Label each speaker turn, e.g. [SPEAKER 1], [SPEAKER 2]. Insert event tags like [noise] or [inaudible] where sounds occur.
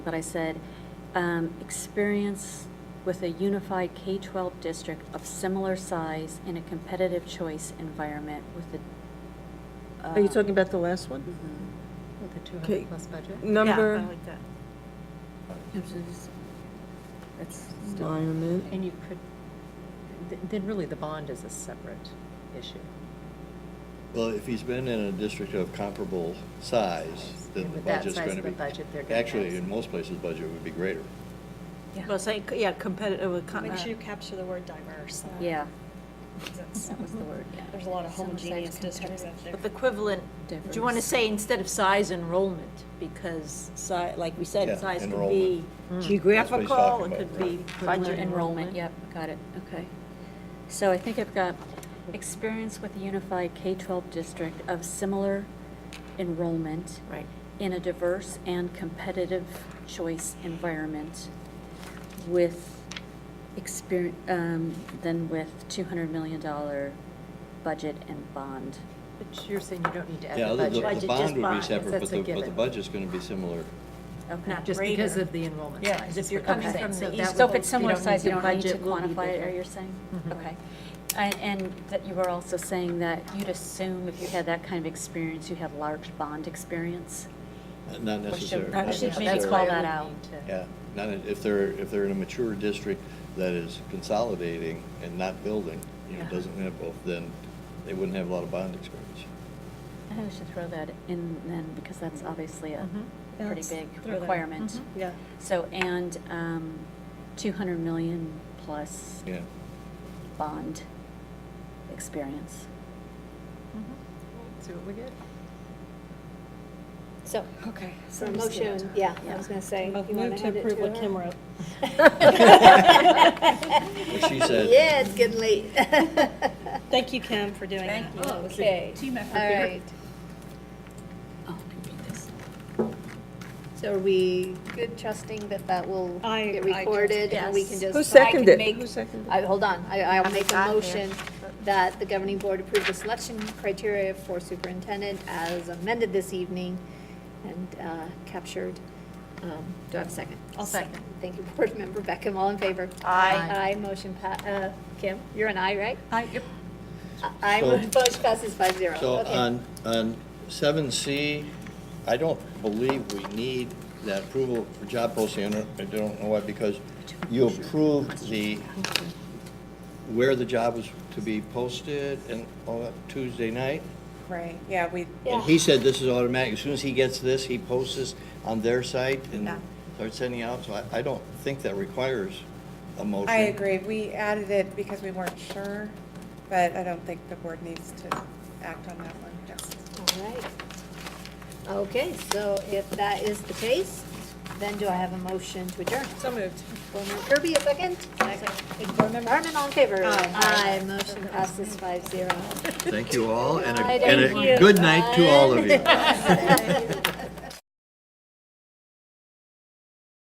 [SPEAKER 1] But I said, um, experience with a unified K-12 district of similar size in a competitive choice environment with the. uh,
[SPEAKER 2] Are you talking about the last one?
[SPEAKER 1] mm-hmm. With a
[SPEAKER 2] Okay.
[SPEAKER 1] 200 plus budget?
[SPEAKER 2] Number,
[SPEAKER 1] That's still,
[SPEAKER 2] environment,
[SPEAKER 3] And you could, th- then really the bond is a separate issue.
[SPEAKER 4] Well, if he's been in a district of comparable size, then
[SPEAKER 3] And
[SPEAKER 4] the
[SPEAKER 3] with that
[SPEAKER 4] budget's
[SPEAKER 3] size
[SPEAKER 4] going to
[SPEAKER 3] of
[SPEAKER 4] be.
[SPEAKER 3] a budget, they're gonna have-
[SPEAKER 4] Actually, in most places, budget would be greater.
[SPEAKER 2] well, say, yeah, uh, competitive, com-
[SPEAKER 5] Make sure you capture the word diverse.
[SPEAKER 1] yeah,
[SPEAKER 5] 'Cause it's-
[SPEAKER 1] that was the word, yeah.
[SPEAKER 5] There's a lot of
[SPEAKER 1] Similar size
[SPEAKER 5] homogeneous districts out
[SPEAKER 1] competitive.
[SPEAKER 5] there.
[SPEAKER 6] With equivalent, do you want to
[SPEAKER 1] Difference.
[SPEAKER 6] say instead of size enrollment? Because si, like we
[SPEAKER 4] Yeah,
[SPEAKER 6] said, size could be
[SPEAKER 4] enrollment.
[SPEAKER 6] geographical,
[SPEAKER 4] talking
[SPEAKER 6] it could
[SPEAKER 4] about,
[SPEAKER 6] be budget
[SPEAKER 1] Enrollment, yep, got it, okay. So I think I've got experience with a unified K-12 district of similar enrollment
[SPEAKER 6] Right.
[SPEAKER 1] in a diverse and competitive choice environment with experience, um, then with two hundred million dollar budget and bond.
[SPEAKER 3] But you're saying you don't need to
[SPEAKER 4] Yeah,
[SPEAKER 3] add the
[SPEAKER 4] other- the-
[SPEAKER 3] budget.
[SPEAKER 6] Budget,
[SPEAKER 4] The bond
[SPEAKER 6] just
[SPEAKER 4] would be
[SPEAKER 6] bond,
[SPEAKER 4] separate, but
[SPEAKER 3] that's a
[SPEAKER 4] the, but the
[SPEAKER 3] given.
[SPEAKER 4] budget's going to be similar.
[SPEAKER 1] Okay.
[SPEAKER 6] Not
[SPEAKER 3] Just because
[SPEAKER 6] greater.
[SPEAKER 3] of the enrollment
[SPEAKER 6] Yeah,
[SPEAKER 3] size.
[SPEAKER 6] 'cause
[SPEAKER 3] is
[SPEAKER 6] if you're
[SPEAKER 3] what I'm
[SPEAKER 6] coming
[SPEAKER 3] saying.
[SPEAKER 6] from
[SPEAKER 3] So
[SPEAKER 6] the
[SPEAKER 3] that
[SPEAKER 6] east-
[SPEAKER 3] would-
[SPEAKER 1] So if
[SPEAKER 3] you
[SPEAKER 1] it's similar
[SPEAKER 3] don't
[SPEAKER 1] size,
[SPEAKER 3] the
[SPEAKER 1] you don't need to
[SPEAKER 3] budget will be
[SPEAKER 1] quantify it,
[SPEAKER 3] bigger.
[SPEAKER 1] are you saying?
[SPEAKER 3] Mhm.
[SPEAKER 1] Okay. And, and that you were also saying that you'd assume if you had that kind of experience, you had large bond experience?
[SPEAKER 4] Uh, Not
[SPEAKER 1] Or should-
[SPEAKER 4] necessarily.
[SPEAKER 1] uh,
[SPEAKER 4] not
[SPEAKER 1] should maybe
[SPEAKER 4] necessarily.
[SPEAKER 1] call that
[SPEAKER 3] We
[SPEAKER 1] out.
[SPEAKER 3] need to-
[SPEAKER 4] Yeah, not, in- if they're, if they're in a mature district that is consolidating and not building, you know,
[SPEAKER 1] Yeah.
[SPEAKER 4] doesn't have both, then they wouldn't have a lot of bond experience.
[SPEAKER 1] I think we should throw that in then, because that's obviously a
[SPEAKER 3] Mhm.
[SPEAKER 5] Yeah,
[SPEAKER 1] pretty
[SPEAKER 5] let's
[SPEAKER 1] big
[SPEAKER 5] throw that in. Mm-hmm.
[SPEAKER 1] requirement.
[SPEAKER 3] Mhm.
[SPEAKER 5] Yeah.
[SPEAKER 1] So, and um, 200 million plus
[SPEAKER 4] Yeah,
[SPEAKER 1] bond experience.
[SPEAKER 3] [laughs] See what we get?
[SPEAKER 7] So,
[SPEAKER 1] Okay.
[SPEAKER 7] so the motion, yeah, I was gonna say. you wanna
[SPEAKER 5] Move to
[SPEAKER 7] hand it
[SPEAKER 5] approve what
[SPEAKER 7] her?
[SPEAKER 5] Kim wrote.
[SPEAKER 4] What she said.
[SPEAKER 7] [laughs] Yeah, it's getting late.
[SPEAKER 5] Thank you, Kim, for doing that.
[SPEAKER 7] Oh, Okay. Team effort All right, so are we good trusting that that will
[SPEAKER 5] I-
[SPEAKER 7] get
[SPEAKER 5] I trust-
[SPEAKER 7] recorded and we can
[SPEAKER 6] Yes.
[SPEAKER 7] just.
[SPEAKER 2] Who
[SPEAKER 7] I can
[SPEAKER 2] seconded?
[SPEAKER 7] make-
[SPEAKER 2] Who seconded?
[SPEAKER 7] I, hold on, I, I'll make a
[SPEAKER 6] got there.
[SPEAKER 7] motion that the governing board approve the selection criteria for superintendent as amended this evening and, uh, captured. Um, do I have a second?
[SPEAKER 3] I'll second.
[SPEAKER 7] Thank you, Board Member Beckham, all in favor?
[SPEAKER 3] Aye.
[SPEAKER 7] Aye, motion pa, uh, Kim, you're an aye, right?
[SPEAKER 3] Hi, yep.
[SPEAKER 7] Aye,
[SPEAKER 4] So-
[SPEAKER 7] motion passes five zero,
[SPEAKER 4] So
[SPEAKER 7] okay.
[SPEAKER 4] on, on seven C, I don't believe we need that approval for job posting, I don't- I don't know why, because you approved the, where the job was to be posted and all that Tuesday night.
[SPEAKER 8] Right, yeah, we,
[SPEAKER 4] And he said this is automatic, as soon as he gets this, he posts this on their site and
[SPEAKER 8] Yeah.
[SPEAKER 4] starts sending out, so I, I don't think that requires a motion.
[SPEAKER 8] I agree, we added it because we weren't sure, but I don't think the board needs to act on that one, yes.
[SPEAKER 7] All right. Okay, so if that is the case, then do I have a motion to adjourn?
[SPEAKER 8] So moved.
[SPEAKER 7] Board Member Kirby, a second? Second. Board Member Harmon, all in favor?
[SPEAKER 8] Aye.
[SPEAKER 7] Aye, motion passes five zero.
[SPEAKER 4] Thank you all, and a,
[SPEAKER 7] Aye,
[SPEAKER 4] and
[SPEAKER 7] thank
[SPEAKER 4] a
[SPEAKER 7] you. [laughs]
[SPEAKER 4] good night to all of you.
[SPEAKER 7] Bye.